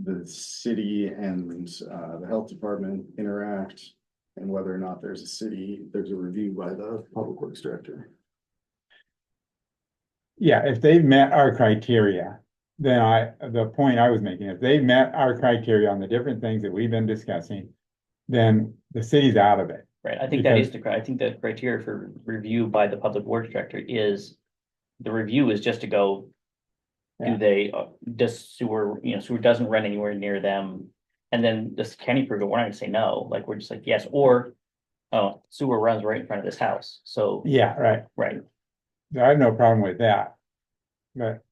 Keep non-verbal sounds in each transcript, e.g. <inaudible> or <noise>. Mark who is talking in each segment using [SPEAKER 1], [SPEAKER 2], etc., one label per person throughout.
[SPEAKER 1] the city and uh the health department interact. And whether or not there's a city, there's a review by the public works director.
[SPEAKER 2] Yeah, if they've met our criteria, then I, the point I was making, if they've met our criteria on the different things that we've been discussing, then the city's out of it.
[SPEAKER 3] Right, I think that is
[SPEAKER 2] Because-
[SPEAKER 3] the, cri- I think the criteria for review by the public works director is, the review is just to go.
[SPEAKER 2] Yeah.
[SPEAKER 3] Do they, uh, does sewer, you know, sewer doesn't run anywhere near them, and then this county program, we're not gonna say no, like, we're just like, yes, or. Oh, sewer runs right in front of this house, so,
[SPEAKER 2] Yeah, right.
[SPEAKER 3] right,
[SPEAKER 2] I have no problem with that. But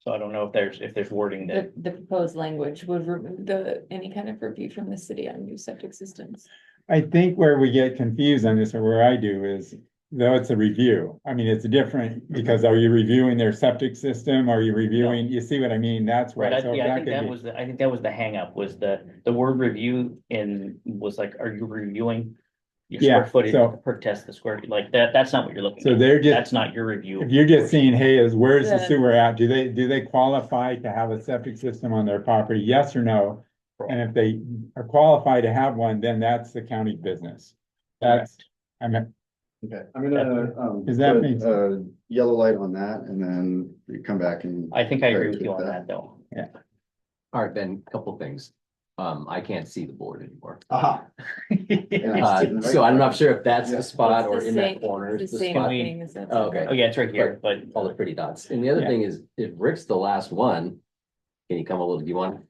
[SPEAKER 3] so I don't know if there's, if there's wording that,
[SPEAKER 4] The, the proposed language would remove the, any kind of review from the city on new septic systems.
[SPEAKER 2] I think where we get confused on this, or where I do, is though it's a review. I mean, it's different because are you reviewing their septic system? Are you reviewing, you see what I mean? That's
[SPEAKER 3] right,
[SPEAKER 2] where. so
[SPEAKER 3] I, yeah, I
[SPEAKER 2] that
[SPEAKER 3] think
[SPEAKER 2] could
[SPEAKER 3] that
[SPEAKER 2] be-
[SPEAKER 3] was, the I think that was the hangup, was the, the word review in, was like, are you reviewing? Your
[SPEAKER 2] Yeah,
[SPEAKER 3] square footage
[SPEAKER 2] so-
[SPEAKER 3] per test, the square, like, that, that's not what you're looking at.
[SPEAKER 2] So they're just,
[SPEAKER 3] That's not your review.
[SPEAKER 2] if you're just seeing, hey, is where's the
[SPEAKER 4] The-
[SPEAKER 2] sewer at? Do they, do they qualify to have a septic system on their property? Yes or no? And if they are qualified to have one, then that's the county's business. That's, I mean,
[SPEAKER 1] Okay, I'm gonna um.
[SPEAKER 2] Does that
[SPEAKER 1] put
[SPEAKER 2] mean-
[SPEAKER 1] A yellow light on that and then we come back and.
[SPEAKER 3] I think I agree with you on that, though.
[SPEAKER 5] All right, Ben, couple things. Um, I can't see the board anymore.
[SPEAKER 1] Aha. And I
[SPEAKER 5] Uh,
[SPEAKER 1] didn't
[SPEAKER 5] so I'm not sure if that's
[SPEAKER 1] Yeah.
[SPEAKER 5] the spot or
[SPEAKER 4] It's the
[SPEAKER 5] in
[SPEAKER 4] same-
[SPEAKER 5] that corner.
[SPEAKER 4] it's
[SPEAKER 5] is
[SPEAKER 4] The
[SPEAKER 5] the
[SPEAKER 4] same
[SPEAKER 5] spot.
[SPEAKER 3] we-
[SPEAKER 4] thing as that.
[SPEAKER 5] Oh, okay.
[SPEAKER 3] <laughs> Oh, yeah, it's right here, but
[SPEAKER 5] All the pretty dots. And the other
[SPEAKER 2] Yeah.
[SPEAKER 5] thing is, if Rick's the last one, can you come a little, do you want?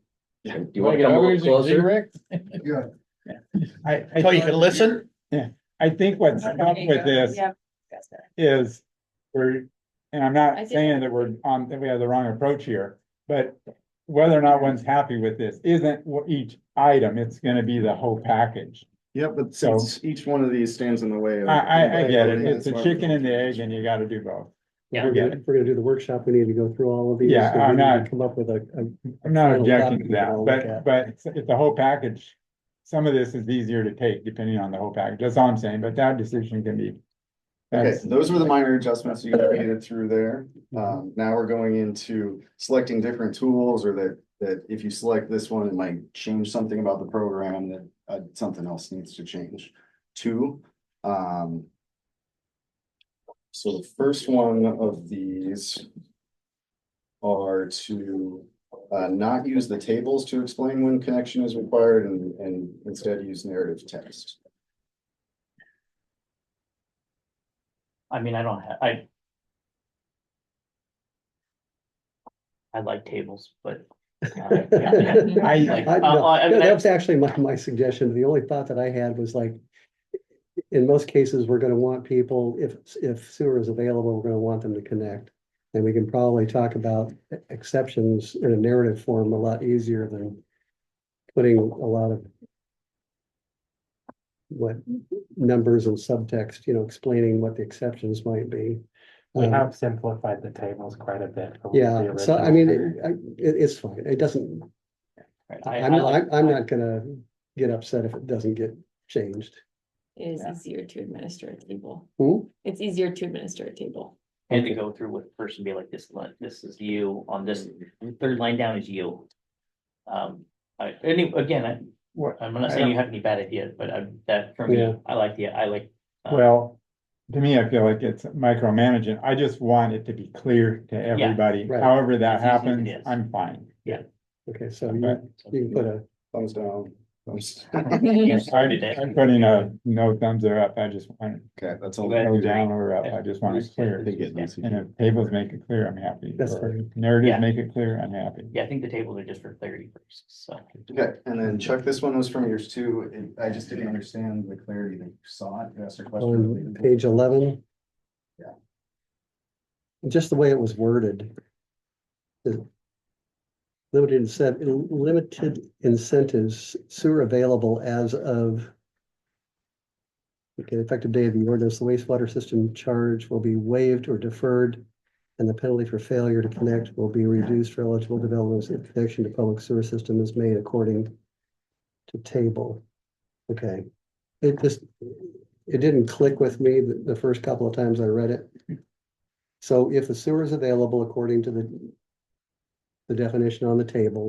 [SPEAKER 1] Yeah.
[SPEAKER 5] Do you want to come a little closer?
[SPEAKER 1] Yeah.
[SPEAKER 2] I,
[SPEAKER 6] Oh, you
[SPEAKER 2] I,
[SPEAKER 6] can listen?
[SPEAKER 2] I think what's up with this
[SPEAKER 4] Yeah. that's better.
[SPEAKER 2] is we're, and I'm not
[SPEAKER 4] I did-
[SPEAKER 2] saying that we're on, that we have the wrong approach here, but whether or not one's happy with this isn't what each item, it's gonna be the whole package.
[SPEAKER 1] Yeah, but
[SPEAKER 2] So-
[SPEAKER 1] since each one of these stands in the way.
[SPEAKER 2] I,
[SPEAKER 1] of-
[SPEAKER 2] I, I get it. It's a chicken and the egg and you gotta do both.
[SPEAKER 3] Yeah.
[SPEAKER 2] I
[SPEAKER 7] We're
[SPEAKER 2] get
[SPEAKER 7] gonna,
[SPEAKER 2] it.
[SPEAKER 7] we're gonna do the workshop, we need to go through all of these.
[SPEAKER 2] Yeah,
[SPEAKER 7] so we
[SPEAKER 2] I'm
[SPEAKER 7] need to
[SPEAKER 2] not-
[SPEAKER 7] Come up with a, a-
[SPEAKER 2] I'm not
[SPEAKER 7] Final
[SPEAKER 2] objecting
[SPEAKER 7] copy
[SPEAKER 2] to
[SPEAKER 7] I'll
[SPEAKER 2] that,
[SPEAKER 7] look
[SPEAKER 2] but,
[SPEAKER 7] at.
[SPEAKER 2] but it's- it's the whole package. Some of this is easier to take depending on the whole package. That's all I'm saying, but that decision can be.
[SPEAKER 1] Okay,
[SPEAKER 2] that's-
[SPEAKER 1] those were the minor adjustments you made through there. Um, now we're going into selecting different tools or that, that if you select this one, it might change something about the program that, uh, something else needs to change. Two, um. So the first one of these are to, uh, not use the tables to explain when connection is required and, and instead use narrative text.
[SPEAKER 3] I mean, I don't have, I. I like tables, but.
[SPEAKER 7] <laughs>
[SPEAKER 3] uh, yeah, yeah.
[SPEAKER 2] I-
[SPEAKER 3] Like,
[SPEAKER 7] I-
[SPEAKER 3] uh,
[SPEAKER 7] no,
[SPEAKER 3] uh, I
[SPEAKER 7] no,
[SPEAKER 3] mean,
[SPEAKER 7] That
[SPEAKER 3] I-
[SPEAKER 7] was actually my, my suggestion. The only thought that I had was like, in most cases, we're gonna want people, if, if sewer is available, we're gonna want them to connect. And we can probably talk about e-, exceptions in a narrative form a lot easier than putting a lot of what numbers and subtext, you know, explaining what the exceptions might be.
[SPEAKER 8] We
[SPEAKER 7] Um,
[SPEAKER 8] have simplified the tables quite a bit. from the
[SPEAKER 7] Yeah, so I
[SPEAKER 8] original.
[SPEAKER 7] mean, it, I- it, it's fine. It doesn't,
[SPEAKER 3] right, I-
[SPEAKER 7] I'm,
[SPEAKER 3] I like-
[SPEAKER 7] I'm, I'm not gonna get upset if it doesn't get changed.
[SPEAKER 4] It is
[SPEAKER 2] Yeah.
[SPEAKER 4] easier to administer a table.
[SPEAKER 7] Hmm?
[SPEAKER 4] It's easier to administer a table.
[SPEAKER 2] <laughs>
[SPEAKER 3] I Had to go through with first and be like this, line- this is you on this, third line down is you. Um, I, any, again, I,
[SPEAKER 2] What,
[SPEAKER 3] I'm not saying you have any bad ideas, but I, that for me,
[SPEAKER 7] Yeah.
[SPEAKER 3] I like the, I like. uh,
[SPEAKER 2] Well, to me, I feel like it's micromanaging. I just want it to be clear to everybody.
[SPEAKER 7] right.
[SPEAKER 2] However that
[SPEAKER 3] As easy as it
[SPEAKER 2] happens,
[SPEAKER 3] is.
[SPEAKER 2] I'm fine.
[SPEAKER 7] Okay, so
[SPEAKER 2] Okay.
[SPEAKER 7] you, you can put a,
[SPEAKER 1] Thumbs down, thumbs. <laughs>
[SPEAKER 3] you
[SPEAKER 2] I-
[SPEAKER 3] started it.
[SPEAKER 2] I'm putting a no thumbs are up. I just want
[SPEAKER 1] Okay, that's all.
[SPEAKER 3] Okay.
[SPEAKER 2] no down or up. I just want it clear. And if tables make it clear, I'm happy.
[SPEAKER 7] That's
[SPEAKER 2] Or
[SPEAKER 7] fine.
[SPEAKER 2] Narrative
[SPEAKER 3] Yeah.
[SPEAKER 2] make it clear, I'm happy.
[SPEAKER 3] Yeah, I think the tables are just for clarity purposes, so.
[SPEAKER 1] Okay, and then Chuck, this one was from yours too, and I just didn't understand the clarity that you saw it, you asked a question.
[SPEAKER 7] on
[SPEAKER 1] related to it.
[SPEAKER 7] page eleven.
[SPEAKER 1] Yeah.
[SPEAKER 7] Just the way it was worded. The Limited incentive, limited incentives sewer available as of. Okay, effective day of the ordinance, the wastewater system charge will be waived or deferred. And the penalty for failure to connect will be reduced for eligible developments if connection to public sewer system is made according. To table. Okay. It just, it didn't click with me the, the first couple of times I read it. So if the sewer is available according to the the definition on the table,